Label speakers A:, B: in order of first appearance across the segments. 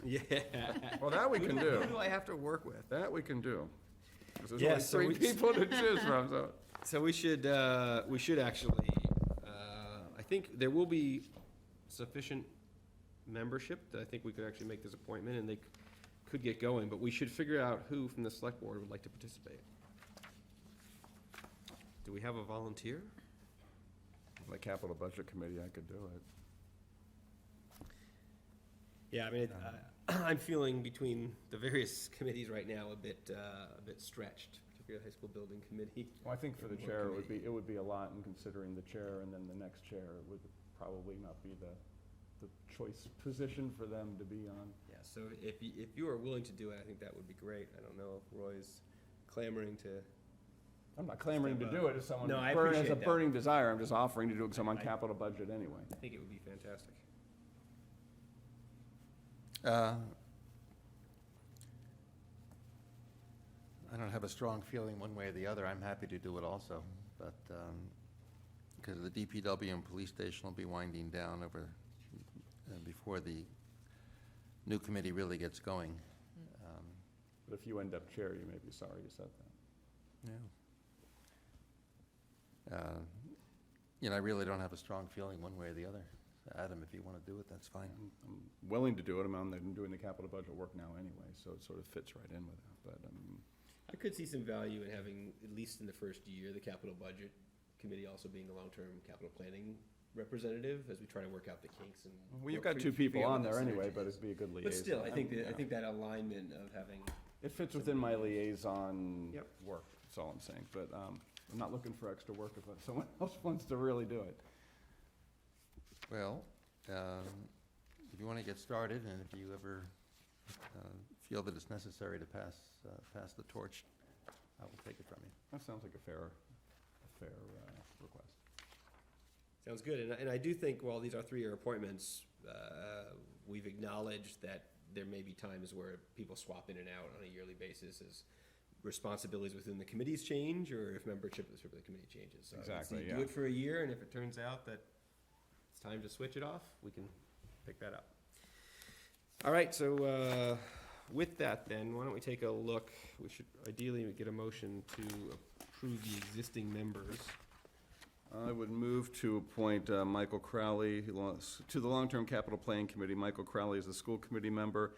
A: Yeah.
B: Well, that we can
A: Who do
B: do.
A: I have to work with?
B: That we can do. 'Cause
A: Yeah,
B: There's
A: so
B: only
A: we
B: three
A: just-
B: people to choose from, so.
A: So we should, uh, we should actually, uh, I think there will be sufficient membership that I think we could actually make this appointment and they c- could get going, but we should figure out who from the select board would like to participate. Do we have a volunteer?
B: The capital budget committee, I could do it.
A: Yeah, I mean, it- I- I'm feeling between the various committees right now a bit, uh, a bit stretched, particularly the high school building committee.
C: Well, I think for the
A: More
C: chair, it would be,
A: committee.
C: it would be a lot in considering the chair, and then the next chair would probably not be the, the choice position for them to be on.
A: Yeah, so if you, if you are willing to do it, I think that would be great. I don't know if Roy's clamoring to.
C: I'm not clamoring to do it if someone
A: No, I
C: burn- has a
A: appreciate that.
C: burning desire, I'm just offering to do it because I'm on
A: I-
C: capital budget anyway.
A: I think it would be fantastic.
D: Uh, I don't have a strong feeling one way or the other. I'm happy to do it also, but, because the DPW and police station will be winding down over, uh, before the new committee really gets going. Um,
C: But if you end up chair, you may be sorry you said that.
D: Yeah. Uh, You know, I really don't have a strong feeling one way or the other. Adam, if you want to do it, that's fine.
C: I'm- I'm willing to do it, I'm on, I'm doing the capital budget work now anyway, so it sort of fits right in with that, but, um,
A: I could see some value in having, at least in the first year, the capital budget committee also being the long-term capital planning representative as we try to work out the kinks and.
C: well, you've
A: work
C: got
A: through-
C: two people
A: figure out
C: on
A: what
C: there
A: the
C: anyway,
A: synergy
C: but
A: is.
C: it'd be a good liaison.
A: But still, I think,
C: I'm-
A: that I
C: yeah.
A: think that alignment of having,
C: It fits within my liaison
A: Yep.
C: work, that's all I'm saying, but um, I'm not looking for extra work if someone else wants to really do it.
D: Well, um, if you want to get started, and if you ever uh, feel that it's necessary to pass, uh, pass the torch, I will take it from you.
C: That sounds like a fair, a fair uh, request.
A: sounds good. And, I- and I do think while these are three-year appointments, uh, we've acknowledged that there may be times where people swap in and out on a yearly basis as responsibilities within the committees change or if membership of the committee changes. So I would say
C: Exactly,
A: Do
C: yeah.
A: it for a year and if it turns out that it's time to switch it off, we can pick that up. All right, so uh, with that then, why don't we take a look? We should ideally get a motion to approve the existing members.
C: I would move to appoint uh, Michael Crowley who wants- to the Long-Term Capital Planning Committee. Michael Crowley is the school committee member,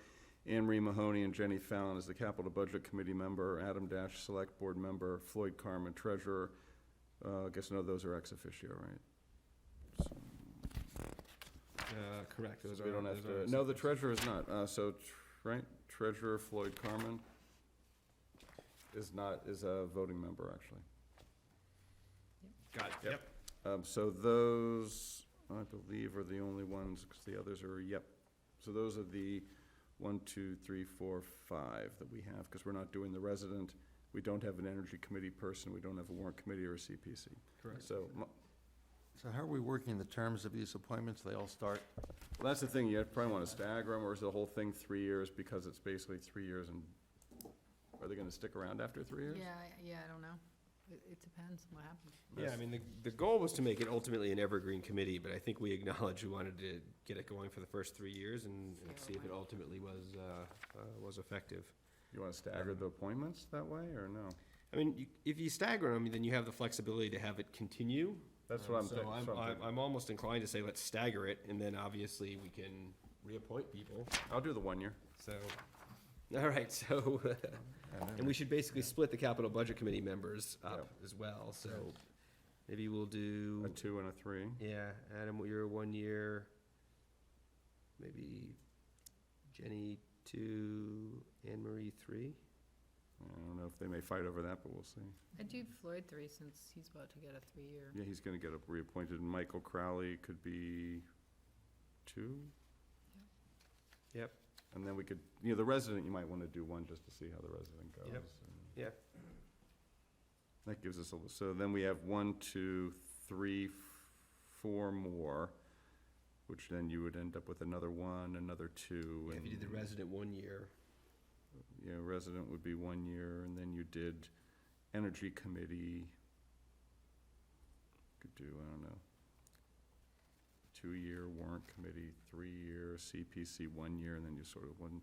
C: Anne Marie Mahoney and Jenny Fallon is the Capital Budget Committee member, Adam Dash, Select Board member, Floyd Carmen, treasurer. Uh, I guess none of those are ex officio, right?
A: Uh, Correct. those
C: So we
A: are-
C: don't have
A: those are-
C: to, no, the treasurer is not, uh, so, tr- right, treasurer Floyd Carmen is not, is a voting member, actually.
A: Got it, yep.
C: Um, so those, I believe, are the only ones, because the others are, yep. So those are the one, two, three, four, five that we have, because we're not doing the resident, we don't have an energy committee person, we don't have a warrant committee or a CPC.
A: Correct.
C: So, mo-
D: So how are we working the terms of these appointments? They all start,
C: Well, that's the thing, you probably want to stagger them, or is the whole thing three years, because it's basically three years, and are they gonna stick around after three years?
E: Yeah, I- yeah, I don't know. It, it depends on what happens.
A: Yeah, I mean, the, the goal was to make it ultimately an evergreen committee, but I think we acknowledged we wanted to get it going for the first three years and and see if it ultimately was, uh, uh, was effective.
C: You want to stagger the appointments that way, or no?
A: I mean, you- if you stagger them, then you have the flexibility to have it continue.
C: That's what I'm
A: Um, So
C: thinking, that's what I'm
A: I'm,
C: thinking.
A: I'm almost inclined to say let's stagger it, and then obviously we can reappoint people,
C: I'll do the one year.
A: so. All right, so, and we should basically split the capital budget committee members up as well, so maybe we'll do.
C: A two and a three.
A: Yeah, Adam, you're one year. Maybe Jenny two, Anne Marie three.
C: I don't know if they may fight over that, but we'll see.
E: I do Floyd three since he's about to get a three-year.
C: Yeah, he's gonna get reappointed, and Michael Crowley could be two,
A: Yep.
C: and then we could, you know, the resident, you might want to do one just to see how the resident goes.
A: Yep.
C: and-
A: Yeah.
C: That gives us a, little. so then we have one, two, three, f- four more, which then you would end up with another one, another two.
A: If you did the
C: and,
A: resident one year,
C: You know, resident would be one year, and then you did energy committee. Could do, I don't know, two-year warrant committee, three-year CPC, one year, and then you sort of one,